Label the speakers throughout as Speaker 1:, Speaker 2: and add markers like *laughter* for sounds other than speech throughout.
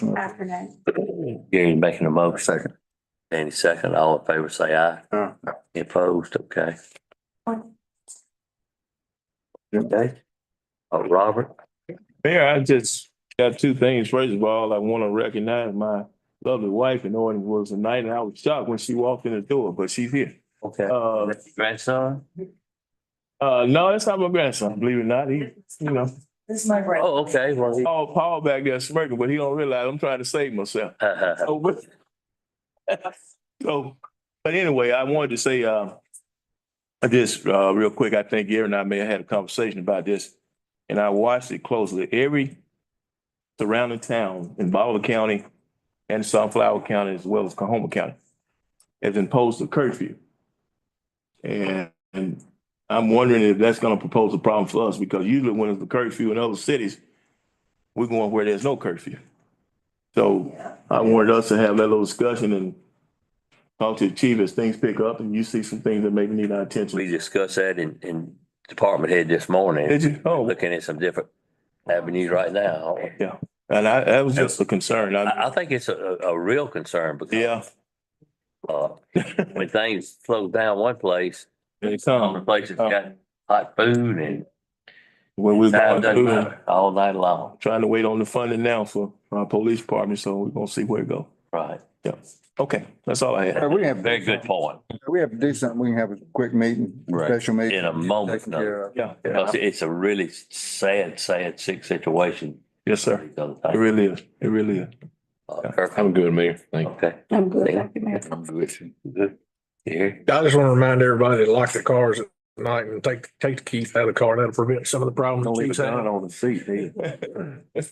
Speaker 1: Motion.
Speaker 2: Afternoon.
Speaker 3: Gary's making a motion.
Speaker 1: Second.
Speaker 3: Danny second. All in favor, say aye.
Speaker 1: Aye.
Speaker 3: Any Opposed, okay. Okay. Oh, Robert,
Speaker 4: Mayor, I just got two things. First of all, I want to recognize my lovely wife and Norton was a night and I was shocked when she walked in the door, but she's here.
Speaker 3: okay.
Speaker 4: Uh,
Speaker 3: Grandson?
Speaker 4: uh, no, that's not my grandson, believe it or not. He, you know,
Speaker 2: This is my break.
Speaker 3: Oh, okay, well, he-
Speaker 4: oh, Paul back there smirking, but he don't realize I'm trying to save myself.
Speaker 3: uh,
Speaker 4: So, but- *laughs* so, but anyway, I wanted to say, uh, I just, uh, real quick, I think Gary and I may have had a conversation about this, and I watched it closely. Every surrounding town in Baldwin County and Sunflower County, as well as Cahoma County, has imposed a curfew. And, and I'm wondering if that's gonna propose a problem for us, because usually when it's a curfew in other cities, we're going where there's no curfew. So I wanted us to have that little discussion and talk to the chief as things pick up and you see some things that maybe need our
Speaker 3: we
Speaker 4: attention.
Speaker 3: discussed that in, in department head this morning,
Speaker 4: Did you? Oh,
Speaker 3: looking at some different avenues right now.
Speaker 4: and I, that was just a concern. I,
Speaker 3: I, I think it's a, a a real concern because,
Speaker 4: yeah,
Speaker 3: uh, when things slow down one place,
Speaker 4: it's,
Speaker 3: other
Speaker 4: um,
Speaker 3: places got hot food and
Speaker 4: when we was
Speaker 3: now it
Speaker 4: going
Speaker 3: doesn't
Speaker 4: through,
Speaker 3: matter, all night long.
Speaker 4: trying to wait on the funding now for, for our police department, so we're gonna see where it go.
Speaker 3: Right.
Speaker 4: Yeah. Okay, that's all I had.
Speaker 1: We have.
Speaker 3: Very good point.
Speaker 1: We have to do something. We can have a quick meeting,
Speaker 3: Right.
Speaker 1: special meeting.
Speaker 3: In a moment,
Speaker 1: Taken care of.
Speaker 4: Yeah, yeah.
Speaker 3: Because it's a really sad, sad, sick situation.
Speaker 4: yes, sir. It really is. It really is.
Speaker 3: I'm good, Mayor. Uh, Okay.
Speaker 2: I'm good. Thank you, Mayor.
Speaker 3: Good. Here,
Speaker 5: I just want to remind everybody to lock the cars at night and take, take the keys out of the car. That'll prevent some of the problems.
Speaker 1: Don't leave a
Speaker 5: Chief's had.
Speaker 1: gun on the seat, do you?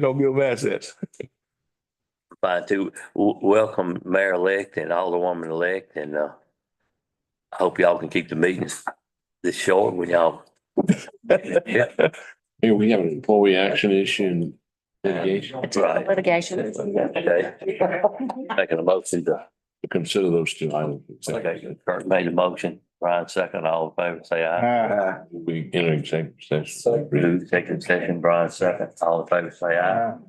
Speaker 4: Don't build assets.
Speaker 3: by to w- welcome Mayor-elect and Alderwoman-elect and, uh, I hope y'all can keep the meetings this short when y'all. Yeah.
Speaker 6: Here we have an employee action issue and litigation
Speaker 2: It's a
Speaker 3: Right.
Speaker 2: Litigation.
Speaker 3: Okay. Making a motion to,
Speaker 6: to consider those two items.
Speaker 3: okay, Kurt made a motion, Brian second, all in favor, say aye.
Speaker 1: Ah,
Speaker 6: We enter executive session.
Speaker 3: Second session, Brian second, all in favor, say aye.
Speaker 1: ah.